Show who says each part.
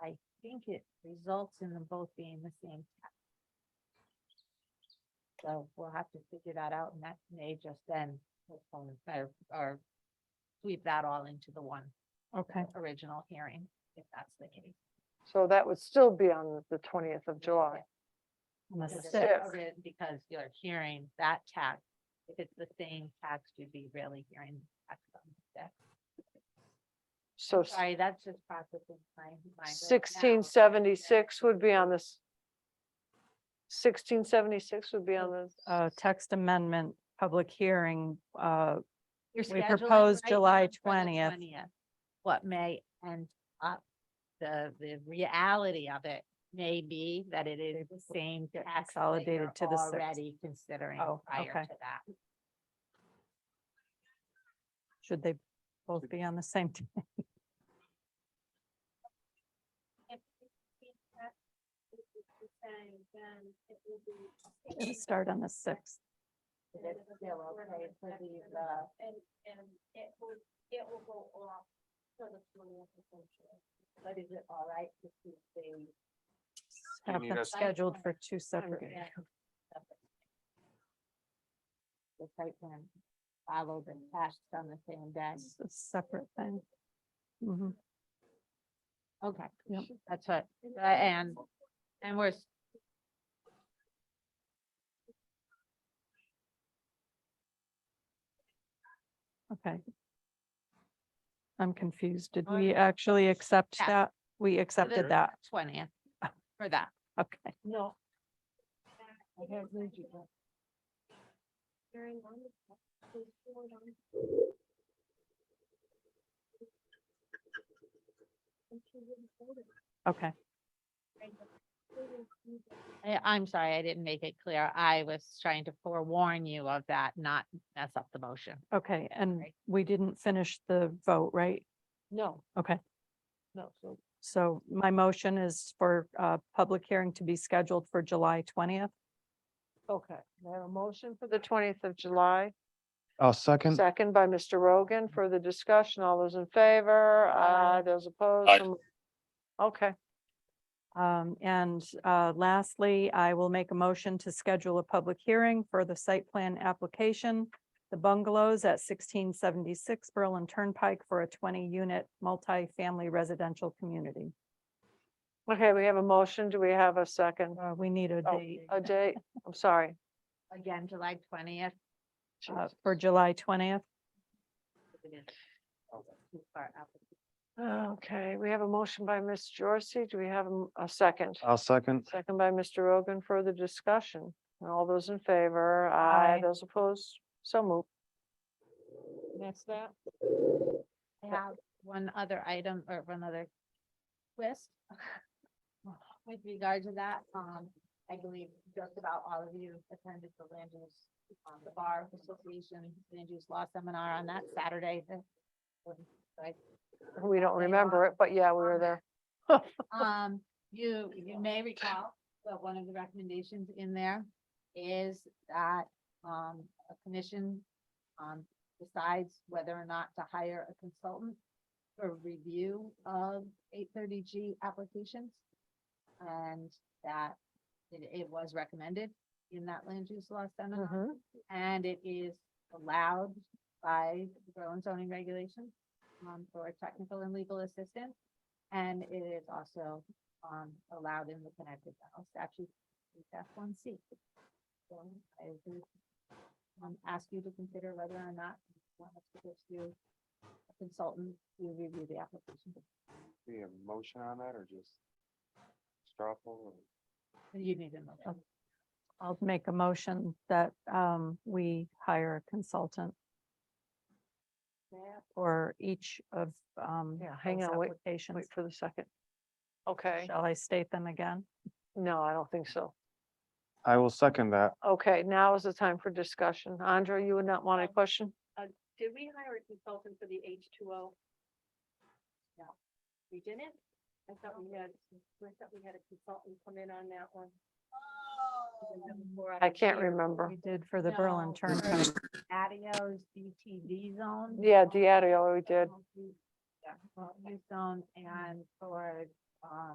Speaker 1: I think it results in them both being the same. tax. So we'll have to figure that out and that may just then postpone or, or sweep that all into the one
Speaker 2: Okay,
Speaker 1: original hearing, if that's the case.
Speaker 3: So that would still be on the twentieth of July.
Speaker 2: on the
Speaker 1: Because it's
Speaker 2: sixth,
Speaker 1: covered- Because you're hearing that tax, if it's the same tax, you'd be really hearing tax on the sixth.
Speaker 3: So s-
Speaker 1: Sorry, that's just processing my mind. right now.
Speaker 3: sixteen seventy-six would be on this. Sixteen seventy-six would be on the,
Speaker 2: uh, text amendment, public hearing, uh,
Speaker 1: You're
Speaker 2: we
Speaker 1: scheduling
Speaker 2: propose
Speaker 1: right
Speaker 2: July
Speaker 1: now for the
Speaker 2: 20th.
Speaker 1: What may end up, the, the reality of it may be that it is the same
Speaker 2: get
Speaker 1: tax that
Speaker 2: consolidated
Speaker 1: you're
Speaker 2: to the sixth.
Speaker 1: Already considering
Speaker 2: Oh,
Speaker 1: prior
Speaker 2: okay.
Speaker 1: to that.
Speaker 2: should they both be on the same? t- It'll Start on the sixth.
Speaker 1: Is it still okay for the, uh,
Speaker 4: And, and it will, it will go off for the twentieth essentially.
Speaker 1: but is it all right to keep the
Speaker 2: Have
Speaker 5: need
Speaker 2: them
Speaker 5: us-
Speaker 2: scheduled for two separate.
Speaker 3: good. Yeah.
Speaker 1: the site plan followed and passed on the same day?
Speaker 2: It's a separate thing. Mhm.
Speaker 1: Okay.
Speaker 2: Yep.
Speaker 1: That's what, uh, and, and we're. s-
Speaker 2: Okay. I'm confused. Did
Speaker 1: Oh,
Speaker 2: we
Speaker 1: yeah.
Speaker 2: actually accept
Speaker 1: Yeah.
Speaker 2: that? We accepted that.
Speaker 1: Twentieth for that.
Speaker 2: Okay,
Speaker 1: No.
Speaker 4: Very long. Please forward on. And she wouldn't hold it,
Speaker 2: okay.
Speaker 4: right, but they didn't use it.
Speaker 1: I, I'm sorry, I didn't make it clear. I was trying to forewarn you of that, not mess up the motion.
Speaker 2: Okay, and
Speaker 1: Right.
Speaker 2: we didn't finish the vote, right?
Speaker 3: no,
Speaker 2: Okay.
Speaker 3: no, so
Speaker 2: So my motion is for a public hearing to be scheduled for July twentieth.
Speaker 3: Okay, we have a motion for the twentieth of July,
Speaker 5: I'll second.
Speaker 3: second by Mr. Rogan. Further discussion, all those in favor,
Speaker 2: Aye.
Speaker 3: uh, those opposed.
Speaker 5: Aye.
Speaker 3: so mo- Okay,
Speaker 2: Um, and, uh, lastly, I will make a motion to schedule a public hearing for the site plan application. The bungalows at sixteen seventy-six Berlin Turnpike for a twenty-unit multifamily residential community.
Speaker 3: okay, we have a motion. Do we have a second?
Speaker 2: Uh, we need a
Speaker 3: Oh,
Speaker 2: date,
Speaker 3: A date, I'm sorry.
Speaker 1: Again, July twentieth.
Speaker 2: uh, for July twentieth.
Speaker 3: Okay, we have a motion by Ms. Jorsey. Do we have a m- a second?
Speaker 5: I'll second.
Speaker 3: Second by Mr. Rogan. Further discussion. All those in favor, aye,
Speaker 2: Aye.
Speaker 3: those opposed, so moved. That's that?
Speaker 1: I have one other item or one other twist. With regard to that, um, I believe just about all of you attended the land use, um, the bar association, land use law seminar on that Saturday. the-
Speaker 3: We don't
Speaker 1: They
Speaker 3: remember
Speaker 1: are
Speaker 3: it, but yeah, we were
Speaker 1: on
Speaker 3: there.
Speaker 1: Um, you, you may recall that one of the recommendations in there is that, um, a commission, um, decides whether or not to hire a consultant for review of eight thirty G applications. And that it, it was recommended in that land use law seminar.
Speaker 3: Mhm.
Speaker 1: And it is allowed by the Berlin zoning regulations um, for technical and legal assistance. And it is also, um, allowed in the Connecticut General Statute, F one C. So I would, um, ask you to consider whether or not you want us to pursue a consultant to review the application.
Speaker 5: Be a motion on that or just straw poll?
Speaker 1: You need to know.
Speaker 2: I'll make a motion that, um, we hire a consultant for each of, um,
Speaker 3: Yeah, hang
Speaker 2: those
Speaker 3: on, wait-
Speaker 2: applications.
Speaker 3: Wait for the second. Okay,
Speaker 2: Shall I state them again?
Speaker 3: no, I don't think so.
Speaker 5: I will second that.
Speaker 3: Okay, now is the time for discussion. Andre, you would not want a
Speaker 4: Um,
Speaker 3: question?
Speaker 4: Did we hire a consultant for the H two O? No, we didn't? I thought we had, I thought we had a consultant come in on that one.
Speaker 3: I can't remember.
Speaker 2: We did for the Berlin
Speaker 1: No.
Speaker 2: Turnpike.
Speaker 1: Adios DTD zone.
Speaker 3: Yeah, Diario, we did.
Speaker 1: Yeah, well, Zone and for, um,